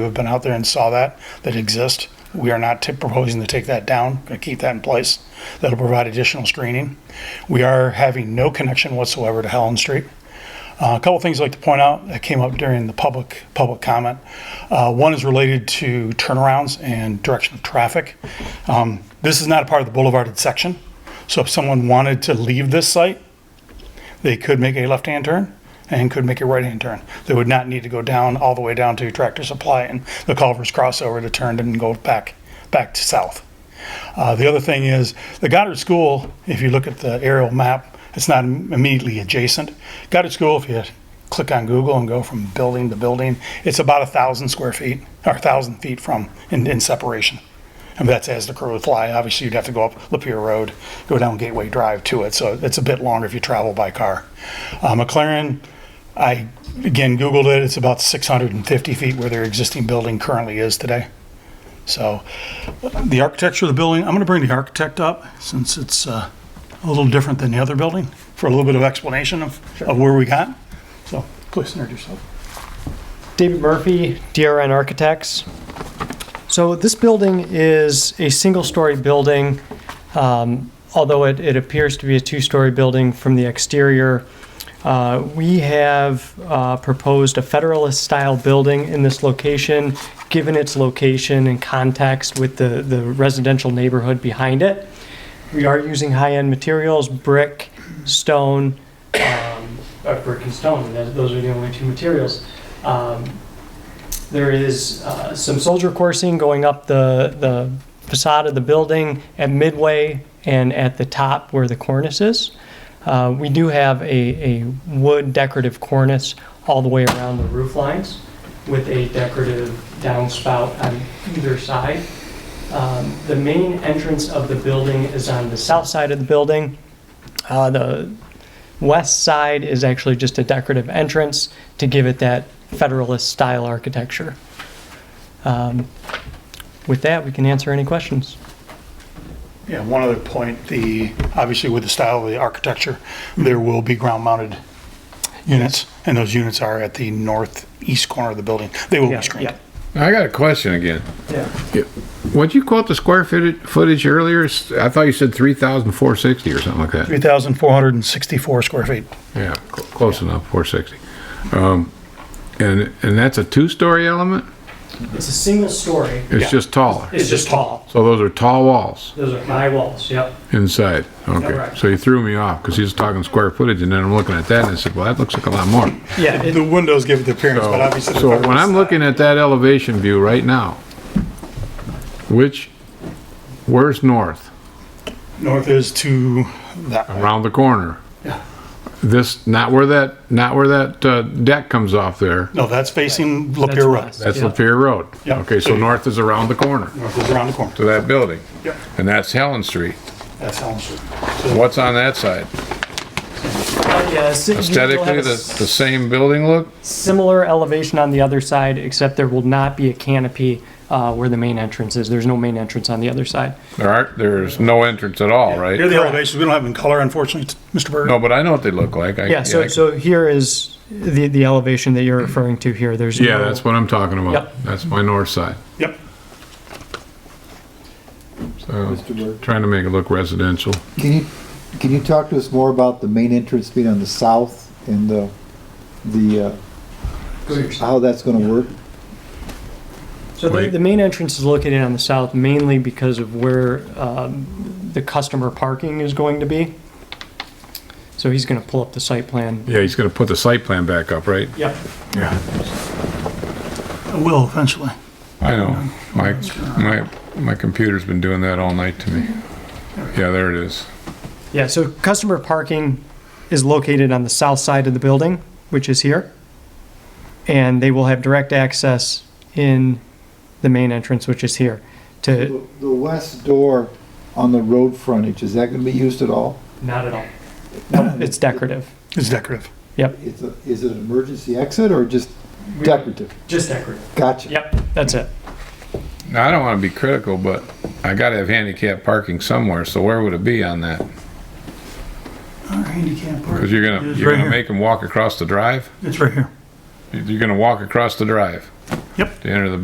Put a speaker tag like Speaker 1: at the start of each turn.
Speaker 1: who have been out there and saw that, that exist. We are not t- proposing to take that down, going to keep that in place. That'll provide additional screening. We are having no connection whatsoever to Helen Street. Uh, a couple things I'd like to point out that came up during the public, public comment. Uh, One is related to turnarounds and direction of traffic. Um, This is not a part of the boulevarded section, so if someone wanted to leave this site, they could make a left-hand turn and could make a right-hand turn. They would not need to go down, all the way down to Tractor Supply and the Culver's crossover to turn and go back, back to south. Uh, the other thing is, the Goddard School, if you look at the aerial map, it's not im- immediately adjacent. Goddard School, if you click on Google and go from building to building, it's about a thousand square feet, or a thousand feet from, in, in separation. And that's as the crow would fly. Obviously, you'd have to go up Lapeer Road, go down Gateway Drive to it, so it's a bit longer if you travel by car. Uh, McLaren, I, again, Googled it, it's about six hundred and fifty feet where their existing building currently is today. So, the architecture of the building, I'm going to bring the architect up since it's uh, a little different than the other building for a little bit of explanation of, of where we got. So please introduce yourself.
Speaker 2: David Murphy, DRN Architects. So this building is a single-story building, um, although it, it appears to be a two-story building from the exterior. Uh, we have uh, proposed a Federalist-style building in this location, given its location and context with the, the residential neighborhood behind it. We are using high-end materials, brick, stone, um, uh, brick and stone. That- Those are the only two materials. Um, There is uh, some soldier coursing going up the, the facade of the building at midway and at the top where the cornice is. Uh, We do have a, a wood decorative cornice all the way around the roof lines with a decorative downspout on either side. Um, The main entrance of the building is on the south side of the building. Uh, The west side is actually just a decorative entrance to give it that Federalist-style architecture. Um, With that, we can answer any questions.
Speaker 1: Yeah, one other point, the, obviously with the style of the architecture, there will be ground-mounted units, and those units are at the northeast corner of the building. They will be screened.
Speaker 3: I got a question again.
Speaker 2: Yeah.
Speaker 3: Would you quote the square footage, footage earlier? S- I thought you said 3,460 or something like that.
Speaker 1: 3,464 square feet.
Speaker 3: Yeah, cl- close enough, 460. Um, and, and that's a two-story element?
Speaker 2: It's a single story.
Speaker 3: It's
Speaker 1: Yeah.
Speaker 3: just taller.
Speaker 2: It's just tall.
Speaker 3: So those are tall walls
Speaker 2: Those are high walls, yep.
Speaker 3: inside. Okay.
Speaker 2: Correct.
Speaker 3: So you threw me off because he was talking square footage and then I'm looking at that and I said, well, that looks like a lot more.
Speaker 2: Yeah, it-
Speaker 1: The windows give it the appearance, but obviously. the
Speaker 3: So when I'm
Speaker 1: federal-
Speaker 3: looking at that elevation view right now, which, where's north?
Speaker 1: North is to that. way.
Speaker 3: around the corner.
Speaker 1: Yeah.
Speaker 3: This, not where that, not where that uh, deck comes off there.
Speaker 1: No, that's facing Lapeer
Speaker 2: That's
Speaker 1: Road.
Speaker 2: west.
Speaker 3: That's
Speaker 2: Yeah.
Speaker 3: Lapeer Road.
Speaker 1: Yeah.
Speaker 3: Okay, so north is around the corner
Speaker 1: North is around the corner.
Speaker 3: to that building.
Speaker 1: Yep.
Speaker 3: And that's Helen Street.
Speaker 1: That's Elm Street.
Speaker 3: What's on that side?
Speaker 2: but yeah, uh, si- you still have
Speaker 3: Aesthetically,
Speaker 2: a
Speaker 3: the, the same building look?
Speaker 2: Similar elevation on the other side, except there will not be a canopy uh, where the main entrance is. There's no main entrance on the other side.
Speaker 3: There aren't, there's no entrance at all,
Speaker 1: Here are
Speaker 3: right?
Speaker 1: the elevations. We don't have them in color, unfortunately, Mr. Berg.
Speaker 3: No, but I know what they look like. I-
Speaker 2: Yeah, so,
Speaker 3: I-
Speaker 2: so here is the, the elevation that you're referring to here. There's
Speaker 3: Yeah,
Speaker 2: no-
Speaker 3: that's what I'm talking about.
Speaker 2: Yep.
Speaker 3: That's my north side.
Speaker 1: Yep.
Speaker 3: So, trying to make it look residential.
Speaker 4: Can you, can you talk to us more about the main entrance being on the south and the, the, uh, how that's gonna work?
Speaker 2: So the,
Speaker 3: Wait.
Speaker 2: the main entrance is located on the south mainly because of where um, the customer parking is going to be. So he's going to pull up the site plan.
Speaker 3: Yeah, he's gonna put the site plan back up, right?
Speaker 2: Yep.
Speaker 3: Yeah.
Speaker 1: It will eventually.
Speaker 3: I know. My, my, my computer's been doing that all night to me. Yeah, there it is.
Speaker 2: Yeah, so customer parking is located on the south side of the building, which is here. And they will have direct access in the main entrance, which is here, to.
Speaker 4: The the west door on the road frontage, is that gonna be used at all?
Speaker 2: Not at all. No, it's decorative.
Speaker 1: It's decorative.
Speaker 2: Yep.
Speaker 4: Is, it- is it an emergency exit or just decorative?
Speaker 2: Just decorative.
Speaker 4: Gotcha.
Speaker 2: Yep, that's it.
Speaker 3: Now, I don't want to be critical, but I gotta have handicap parking somewhere, so where would it be on that?
Speaker 1: Our handicap park.
Speaker 3: Because you're gonna,
Speaker 1: It's
Speaker 3: you're
Speaker 1: right
Speaker 3: gonna
Speaker 1: here.
Speaker 3: make them walk across the drive?
Speaker 1: It's right here.
Speaker 3: You're gonna walk across the drive?
Speaker 1: Yep.
Speaker 3: To enter the